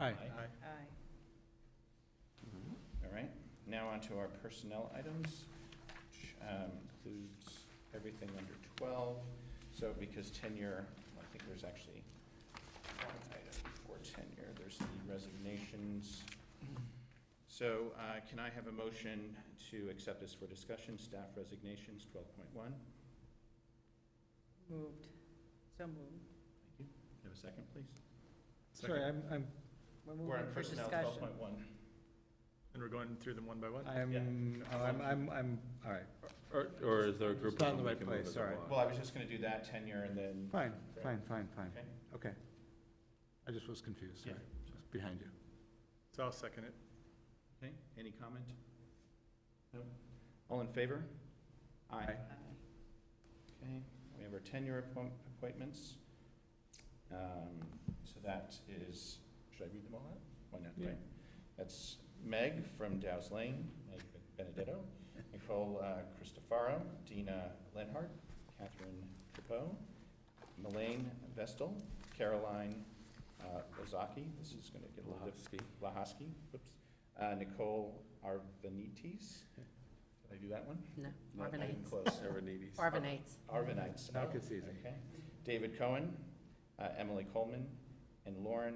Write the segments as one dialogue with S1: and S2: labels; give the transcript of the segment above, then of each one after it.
S1: Aye.
S2: Aye.
S3: All right, now on to our personnel items, which um, includes everything under 12. So because tenure, I think there's actually one item for tenure, there's the resignations. So uh, can I have a motion to accept this for discussion, staff resignations, 12.1? Thank
S2: Moved. So moved.
S3: you. Can I Have a second, please?
S1: Sorry, I'm, I'm,
S2: We're
S3: We're
S2: moving
S3: on
S2: for
S3: personnel,
S2: discussion.
S3: 12.1.
S4: And we're going through them one by one?
S1: I'm, oh, I'm, I'm, I'm, all right.
S5: Or, or is there a group of
S1: It's not in
S5: them
S1: the
S5: we
S1: right
S5: can move
S1: place,
S5: as
S1: sorry.
S5: a
S3: Well,
S5: block?
S3: I was just going to do that tenure and then.
S1: Fine, fine, fine, fine.
S3: Okay.
S1: Okay. I just was confused, sorry.
S3: Yeah.
S1: It's Behind you.
S4: So I'll second it.
S3: Okay, any comment? No? All in favor? Aye.
S2: Aye.
S3: Okay, we have our tenure appoint- appointments. Um, So that is, should I read them all out? Why not,
S1: Yeah.
S3: right? That's Meg from Dow's Lane, Meg Benedetto, Nicole uh, Cristofaro, Dina Lenhart, Catherine Capo, Melaine Vestal, Caroline uh, Lazaki, this is going to get a little difficult.
S5: Lahofsky.
S3: Lahosky, whoops, uh, Nicole Arvanites. Did I do that one?
S6: No,
S3: Not even
S6: Arvanites.
S3: close.
S5: Serenides.
S6: Arvanites.
S3: Arvanites.
S1: Now it gets easy.
S3: Okay. David Cohen, uh, Emily Coleman, and Lauren,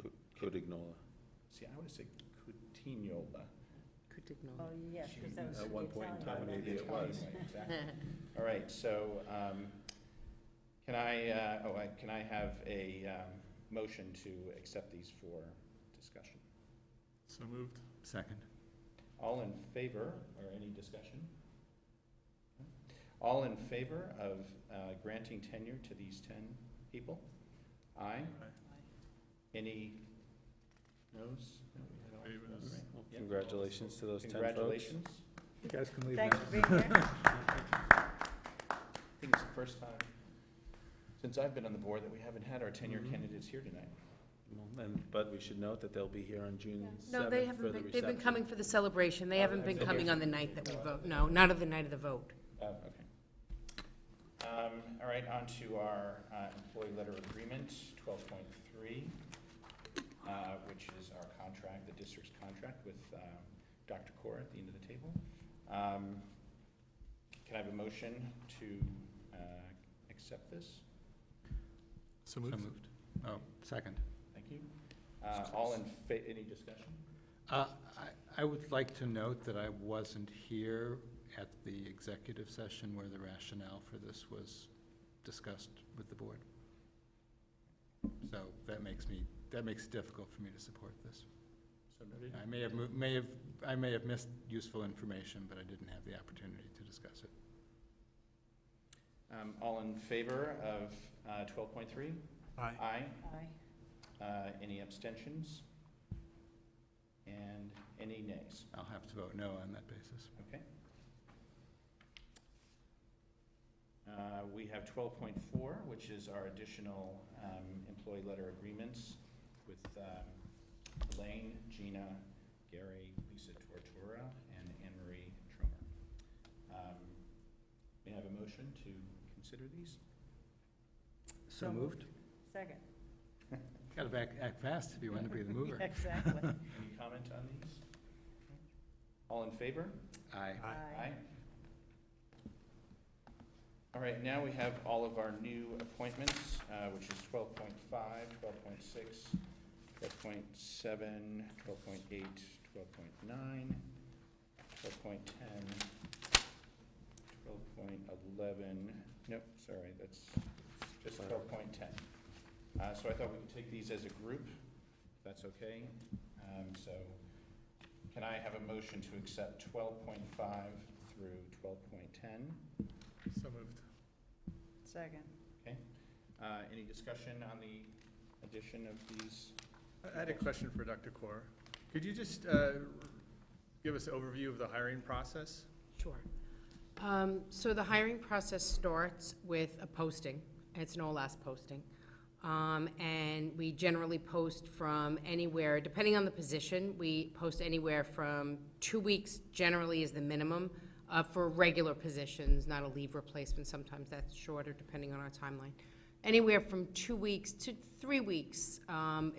S3: Cu-
S5: Codignola.
S3: see, I would say Cutignola.
S2: Oh,
S6: Cutignola.
S2: yeah, because that was
S5: At
S2: the
S5: one point in
S2: Italian
S5: time,
S2: one.
S5: maybe it was.
S3: Exactly. All right, so um, can I, uh, oh, I- can I have a um, motion to accept these for discussion?
S4: So moved.
S1: Second.
S3: All in favor, or any discussion? All in favor of uh, granting tenure to these 10 people? Aye? Any noes? No, we had all-
S4: Maybe it was-
S3: Right. Yep.
S5: Congratulations to those 10 folks.
S3: Congratulations.
S1: You guys can leave
S2: Thanks
S1: now.
S2: for being here.
S3: I think it's the first time since I've been on the board that we haven't had our tenure
S5: Mhm.
S3: candidates here tonight.
S5: Well, And, but we should note that they'll be here on June 7th
S6: No, they
S5: for the
S6: haven't been, they've been
S5: reception. Oh,
S6: coming for the celebration. They haven't been
S3: Okay.
S6: coming on the night that we vote. No, not on the night of the vote.
S3: Oh, okay. Um, All right, on to our uh, employee letter agreement, twelve point three, uh, which is our contract, the district's contract with um, Dr. Core at the end of the table. Um, Can I have a motion to uh, accept this?
S4: So
S1: So
S4: moved.
S1: moved. Oh, second.
S3: Thank you. Uh, All in, fa- any discussion?
S1: Uh, I I would like to note that I wasn't here at the executive session where the rationale for this was discussed with the board. So that makes me, that makes it difficult for me to support this.
S3: So noted.
S1: I may have, mo- may have, I may have missed useful information, but I didn't have the opportunity to discuss it.
S3: Um, All in favor of uh, twelve point three?
S4: Aye.
S3: Aye.
S2: Aye.
S3: Uh, Any abstentions? And any nays?
S1: I'll have to vote no on that basis.
S3: Okay. Uh, We have 12.4, which is our additional um, employee letter agreements with um, Elaine, Gina, Gary, Lisa Tortora, and Anne Marie Trumer. Um, May I have a motion to consider these?
S2: So moved. Second.
S1: Got to back, act fast if you want to be the mover.
S2: Exactly.
S3: Any comment on these? All in favor?
S1: Aye.
S2: Aye.
S3: All right, now we have all of our new appointments, uh, which is 12.5, 12.6, 12.7, 12.8, 12.9, 12.10, 12.11, nope, sorry, that's just 12.10. Uh, So I thought we could take these as a group, if that's okay. Um, So can I have a motion to accept 12.5 through 12.10?
S4: So moved.
S2: Second.
S3: Okay, Uh, any discussion on the addition of these?
S4: I I had a question for Dr. Corr. Could you just uh, give us an overview of the hiring process?
S6: Sure. Um, So the hiring process starts with a posting. It's an OLAS posting. Um, And we generally post from anywhere, depending on the position, we post anywhere from two weeks generally is the minimum uh, for regular positions, not a leave replacement. Sometimes that's shorter, depending on our timeline. Anywhere from two weeks to three weeks um,